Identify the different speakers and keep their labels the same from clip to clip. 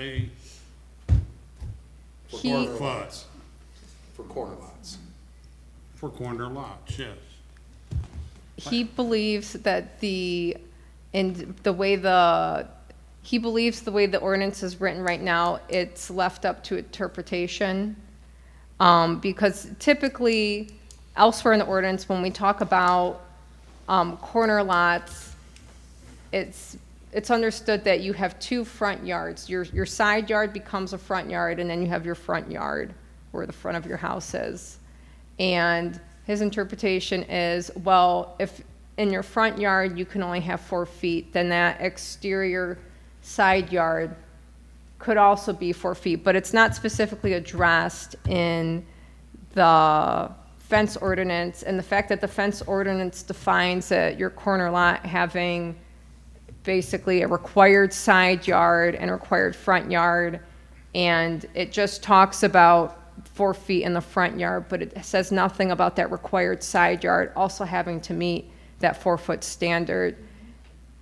Speaker 1: A
Speaker 2: He,
Speaker 1: plus
Speaker 3: for corner lots.
Speaker 1: for corner lots, yes.
Speaker 2: he believes that the, and the way the, he believes the way the ordinance is written right now, it's left up to interpretation. Um, because typically elsewhere in the ordinance, when we talk about, um, corner lots, it's, it's understood that you have two front yards. Your, your side yard becomes a front yard, and then you have your front yard, where the front of your house is. And his interpretation is, well, if in your front yard, you can only have four feet, then that exterior side yard could also be four feet, but it's not specifically addressed in the fence ordinance, and the fact that the fence ordinance defines that your corner lot having basically a required side yard and required front yard, and it just talks about four feet in the front yard, but it says nothing about that required side yard also having to meet that four-foot standard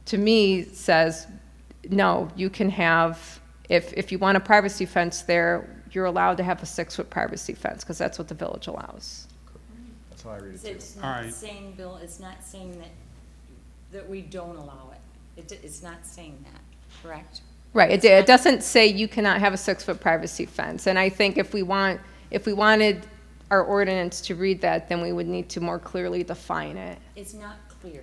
Speaker 2: to me says, no, you can have, if, if you want a privacy fence there, you're allowed to have a six-foot privacy fence, because that's what the village allows.
Speaker 4: That's how I read it
Speaker 5: So
Speaker 4: too.
Speaker 5: it's
Speaker 1: All
Speaker 5: not
Speaker 1: right.
Speaker 5: saying, Bill, it's not saying that, that we don't allow it. It, d- it's not saying that, correct?
Speaker 2: Right, it, it doesn't say you cannot have a six-foot privacy fence, and I think if we want, if we wanted our ordinance to read that, then we would need to more clearly define it,
Speaker 5: It's not clear.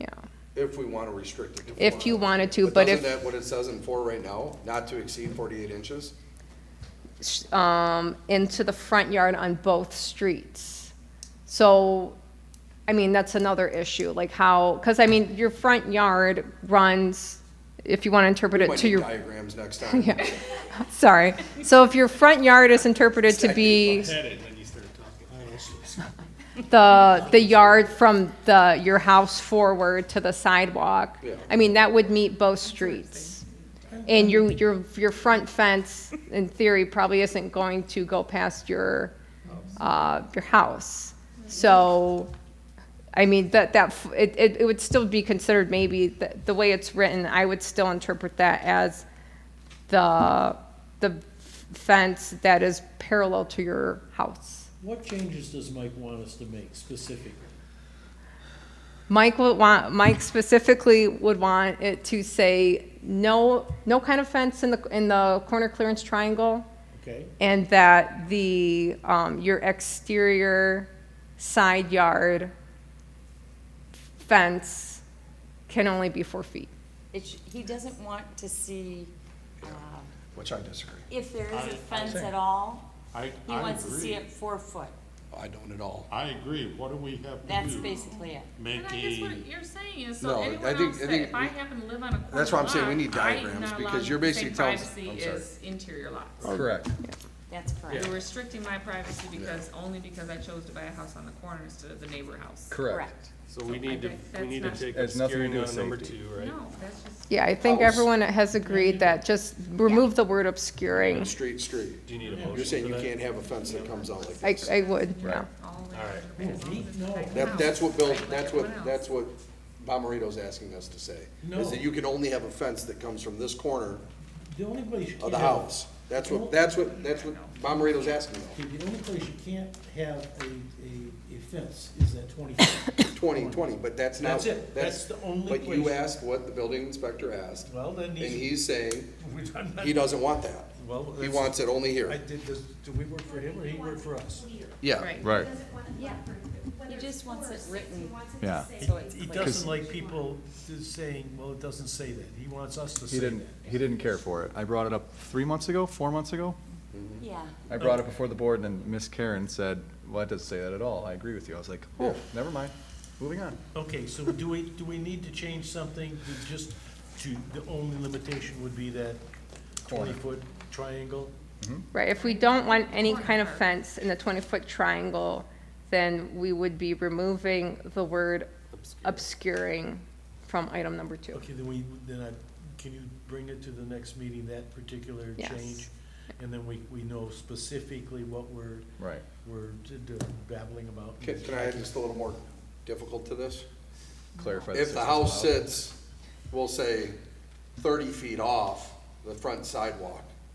Speaker 2: yeah.
Speaker 3: If we want to restrict it to four.
Speaker 2: If you wanted to, but if,
Speaker 3: Isn't that what it says in four right now, not to exceed forty-eight inches?
Speaker 2: um, into the front yard on both streets. So, I mean, that's another issue, like how, because I mean, your front yard runs, if you want to interpret it
Speaker 3: Might
Speaker 2: to
Speaker 3: need
Speaker 2: your,
Speaker 3: diagrams next time.
Speaker 2: Yeah. sorry. So if your front yard is interpreted to be the, the yard from the, your house forward to the sidewalk,
Speaker 3: Yeah.
Speaker 2: I mean, that would meet both streets. And your, your, your front fence, in theory, probably isn't going to go past your, uh, your house. So, I mean, that, that, f- it, it, it would still be considered maybe, the, the way it's written, I would still interpret that as the, the fence that is parallel to your house.
Speaker 6: What changes does Mike want us to make specifically?
Speaker 2: Mike would want, Mike specifically would want it to say, no, no kind of fence in the, in the corner clearance triangle,
Speaker 6: Okay,
Speaker 2: and that the, um, your exterior side yard fence can only be four feet.
Speaker 5: It, sh- he doesn't want to see, uh,
Speaker 3: Which I disagree.
Speaker 5: if there is
Speaker 1: I- I
Speaker 5: a fence
Speaker 1: think-
Speaker 5: at all,
Speaker 1: I,
Speaker 5: he
Speaker 1: I
Speaker 5: wants to see
Speaker 1: agree.
Speaker 5: it four foot.
Speaker 3: I don't at all.
Speaker 1: I agree. What do we have to
Speaker 5: That's
Speaker 1: do?
Speaker 5: basically it.
Speaker 1: Make
Speaker 7: And I guess
Speaker 1: a,
Speaker 7: what you're saying is,
Speaker 3: No,
Speaker 7: so
Speaker 3: I
Speaker 7: anyone
Speaker 3: think-
Speaker 7: else
Speaker 3: I
Speaker 7: that
Speaker 3: think
Speaker 7: if I
Speaker 3: we-
Speaker 7: happen to live on a corner lot.
Speaker 3: That's why I'm saying we need
Speaker 7: I am
Speaker 3: diagrams,
Speaker 7: not
Speaker 3: because
Speaker 7: allowed
Speaker 3: you're
Speaker 7: to
Speaker 3: basically
Speaker 7: say
Speaker 3: telling- I'm
Speaker 7: Privacy
Speaker 3: sorry.
Speaker 7: is interior lots.
Speaker 4: Correct.
Speaker 5: That's correct.
Speaker 7: You're restricting my privacy because, only because I chose to buy a house on the corner instead of the neighbor house.
Speaker 4: Correct.
Speaker 5: Correct.
Speaker 8: So we need to,
Speaker 7: That's
Speaker 8: we need to
Speaker 7: not-
Speaker 8: take
Speaker 4: Has
Speaker 8: obscuring
Speaker 4: nothing to do
Speaker 8: out
Speaker 4: with
Speaker 8: of number
Speaker 4: safety.
Speaker 8: two, right?
Speaker 7: No, that's just,
Speaker 2: Yeah, I think
Speaker 3: House.
Speaker 2: everyone has agreed that just remove the word obscuring.
Speaker 3: Street, street.
Speaker 8: Do you need a
Speaker 3: You're
Speaker 8: motion
Speaker 3: saying
Speaker 8: for
Speaker 3: you
Speaker 8: that?
Speaker 3: can't have a fence that comes out like
Speaker 2: I,
Speaker 3: this.
Speaker 2: I would, yeah.
Speaker 7: all the way.
Speaker 8: All right.
Speaker 7: to the back. As long as it's back
Speaker 3: That,
Speaker 7: house,
Speaker 3: that's what Bill,
Speaker 7: like
Speaker 3: that's
Speaker 7: everyone
Speaker 3: what,
Speaker 7: else.
Speaker 3: that's what Bomarito's asking us to say.
Speaker 6: No.
Speaker 3: Is that you can only have a fence that comes from this corner
Speaker 6: The only place you can't.
Speaker 3: of the house. That's what, that's what, that's what Bomarito's asking
Speaker 6: Okay, the only place you can't have a, a, a fence is that twenty feet.
Speaker 3: though. Twenty, twenty, but that's not.
Speaker 6: That's it. That's the only
Speaker 3: But you
Speaker 6: place.
Speaker 3: asked what the building inspector asked.
Speaker 6: Well, then
Speaker 3: And
Speaker 6: he's-
Speaker 3: he's saying,
Speaker 6: We don't-
Speaker 3: He doesn't want that.
Speaker 6: Well,
Speaker 3: He
Speaker 6: that's-
Speaker 3: wants it only
Speaker 6: I
Speaker 3: here.
Speaker 6: did, does, do we work for him or he work for us?
Speaker 3: Yeah.
Speaker 7: Right.
Speaker 4: Right.
Speaker 5: Yeah, he just wants it written,
Speaker 4: Yeah.
Speaker 5: so it's
Speaker 6: He
Speaker 5: clear.
Speaker 6: doesn't like people just saying, well, it doesn't say that. He wants us to
Speaker 4: He
Speaker 6: say that.
Speaker 4: didn't, he didn't care for it. I brought it up three months ago, four months ago.
Speaker 5: Yeah.
Speaker 4: I brought it before the board and then Miss Karen said, well, that doesn't say that at all. I agree with you. I was like, oh, never mind. Moving on.
Speaker 6: Okay, so do we, do we need to change something to just, to, the only limitation would be that
Speaker 4: Corner.
Speaker 6: twenty-foot triangle?
Speaker 2: Right, if we don't want any kind of fence in the twenty-foot triangle, then we would be removing the word obscuring from item number two.
Speaker 6: Okay, then we, then I, can you bring it to the next meeting, that particular
Speaker 2: Yes.
Speaker 6: change? And then we, we know specifically what we're,
Speaker 4: Right.
Speaker 6: we're d- d- babbling about.
Speaker 3: Can, can I add just a little more difficult to this?
Speaker 4: Clarify.
Speaker 3: If the
Speaker 4: six
Speaker 3: house
Speaker 4: is allowed.
Speaker 3: sits, we'll say, thirty feet off the front sidewalk,